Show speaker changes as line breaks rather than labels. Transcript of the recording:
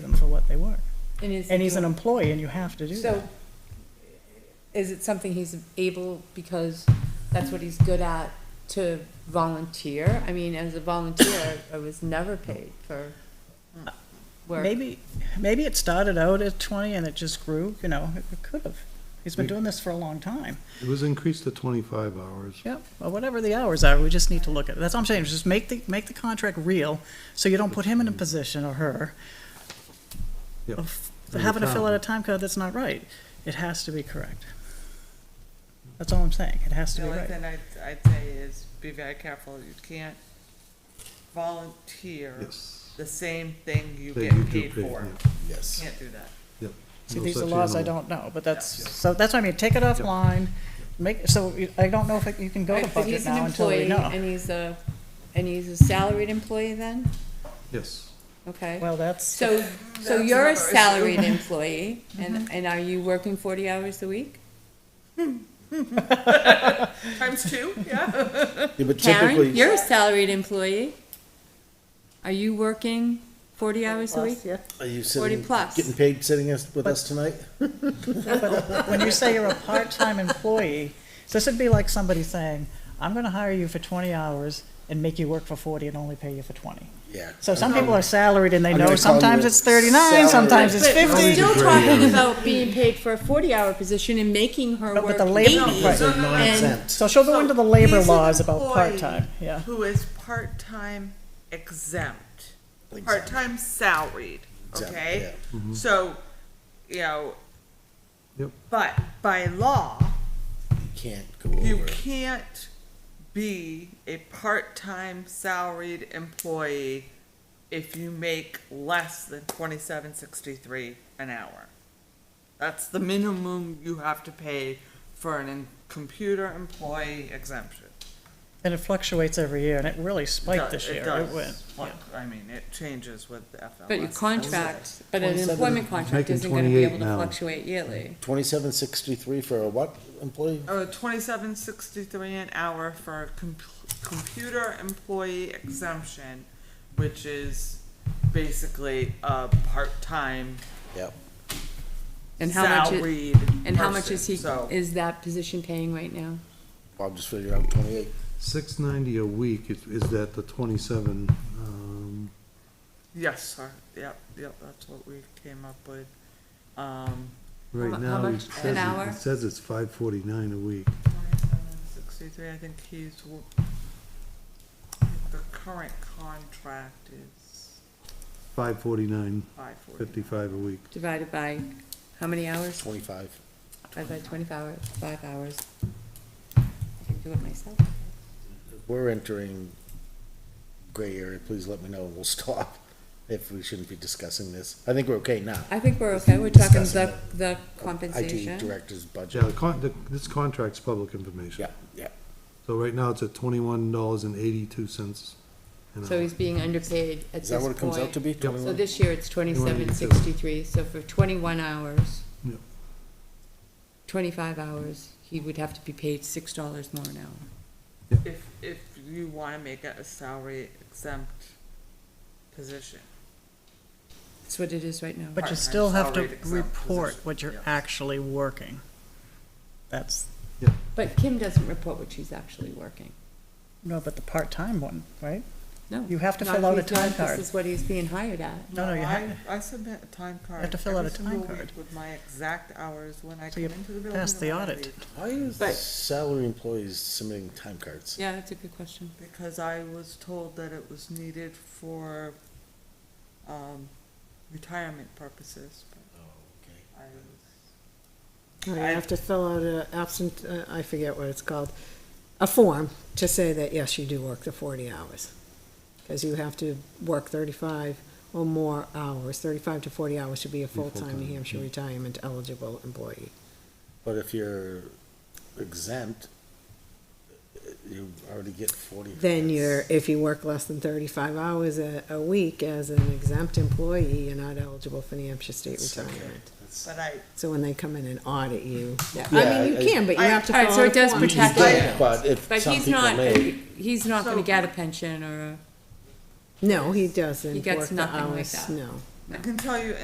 They were.
And is.
And he's an employee and you have to do that.
So, is it something he's able, because that's what he's good at, to volunteer? I mean, as a volunteer, I was never paid for uh, work.
Maybe, maybe it started out at twenty and it just grew, you know, it it could have. He's been doing this for a long time.
It was increased to 25 hours.
Yep, well, whatever the hours are, we just need to look at it. That's what I'm saying, just make the, make the contract real, so you don't put him in a position or her
Yep.
of
Of
having to fill out a
retirement.
time card that's not right. It has to be correct. That's all I'm saying, it has to
The
be
only
right.
thing I'd, I'd say is be very careful, you can't volunteer
Yes.
the same thing you
That
get
you do
paid
pay,
for.
yeah,
Yes.
Can't do that.
yep.
See,
No
these are
such
laws I
animal.
don't know, but that's, so that's what I mean, take it offline, make, so you- I don't know if it- you can go to
Right, But
budget
he's an
now until we
employee,
know.
and he's a, and he's a salaried employee then?
Yes,
Okay.
Well, that's,
So, so
That's
you're
another
a
issue.
salaried employee, and, and are you working forty hours a week?
Times two, yeah.
Yeah,
Karen,
but typically,
you're a salaried employee. Are you working forty hours a week?
are
40
you sitting,
plus.
getting paid sitting us- with us tonight?
when you say you're a part-time employee, this would be like somebody saying, I'm gonna hire you for twenty hours and make you work for forty and only pay you for twenty.
Yeah.
So some
Um,
people are salaried and they
I'm
know
gonna call
sometimes
you a
it's thirty-nine,
salary.
sometimes it's
But we're
fifty.
still
Great.
talking about being paid for a forty-hour position and making her
No, but
work
the labor-
eighty.
Right.
Those are
And-
nonsense.
So she'll go into the labor
He's an
laws about
employee
part-time, yeah.
Who is part-time exempt, part-time salaried,
Exempt,
okay? So, you know,
Mm-hmm. Yep.
but by law,
You Can't go
You
over.
can't be a part-time salaried employee if you make less than twenty-seven sixty-three an hour. That's the minimum you have to pay for an in- computer employee exemption.
And it fluctuates every year and it really spiked
It
this
does-
year,
it
it
does
went.
fluc- I mean, it changes with the FLS.
But your contract, but an
27
employment contract
Making
isn't gonna be
28
able to
now.
fluctuate yearly.
Twenty-seven sixty-three for a what employee?
Or Oh, twenty-seven sixty-three an hour for a com- computer employee exemption, which is basically a part-time
Yep.
And how much, it-
salaried person.
and how much is he,
So,
is that position paying right now?
Bob just figured out twenty-eight.
690 a week is is that the 27, um,
yes, sir, yep, yep, that's what we came up with. Um,
mu-
right
how
now, he
much
says,
an
it-
hour?
it says it's 549 a week.
twenty-seven sixty-three, I think he's, w- I think the current contract is
549,
five forty.
55 a week.
Divided by how many hours?
Twenty-five.
Divided by twenty-five hours, five hours. I can do it myself.
If We're entering gray area. Please let me know. We'll stop if we shouldn't be discussing this. I think we're okay now.
I think we're okay, we're talking the,
Discussing
the
IT
compensation.
director's
Yeah, the
budget.
con- the- this contract's public information.
Yeah, yeah.
So right now, it's at $21.82 an
So
hour.
he's being underpaid at this
Is that what it comes out to
point.
be?
So
21?
this year it's twenty-seven sixty-three, so for twenty-one hours,
Yep.
twenty-five hours, he would have to be paid six dollars more an hour.
If, if you wanna make it a salary exempt position.
That's what it is right now.
But you
part-time
still have to
salaried exempt
report
position,
what you're
yes.
actually working. That's,
But Kim doesn't report what she's actually working.
no, but the part-time one, right?
No.
You have to
not
fill
if
out a
he's not-
time card.
This is what he's being hired at.
No, no, you
I-
have,
I submit a time card.
have to fill out
every
a time
single
card.
week With my exact hours when I
So
come
you
into the building.
pass
and
the
when I
audit.
leave,
Why is
But-
salary employees submitting time cards?
Yeah, that's a good question.
Because I was told that it was needed for, um, retirement purposes, but
Oh, okay.
I was.
I
I-
have to fill out a absent, uh, I forget what it's called, a form to say that, yes, you do work the forty hours. Cause you have to work thirty-five or more hours, thirty-five to forty hours to be a full-time New Hampshire retirement eligible employee.
But if you're exempt, you already get forty.
Then you're, if you work less than thirty-five hours a, a week as an exempt employee, you're not eligible for New Hampshire state
It's okay.
retirement.
But I,
So when they come in and audit you,
Yeah,
I mean,
I-
you can, but you
I-
have to
All
fill
right,
out a
so it does
form.
protect-
You can, But if
But
some
he's
people
not,
may,
he's not gonna
So-
get a pension or a.
No, he doesn't
gets
work the
nothing like
hours,
that.
no.
I can tell you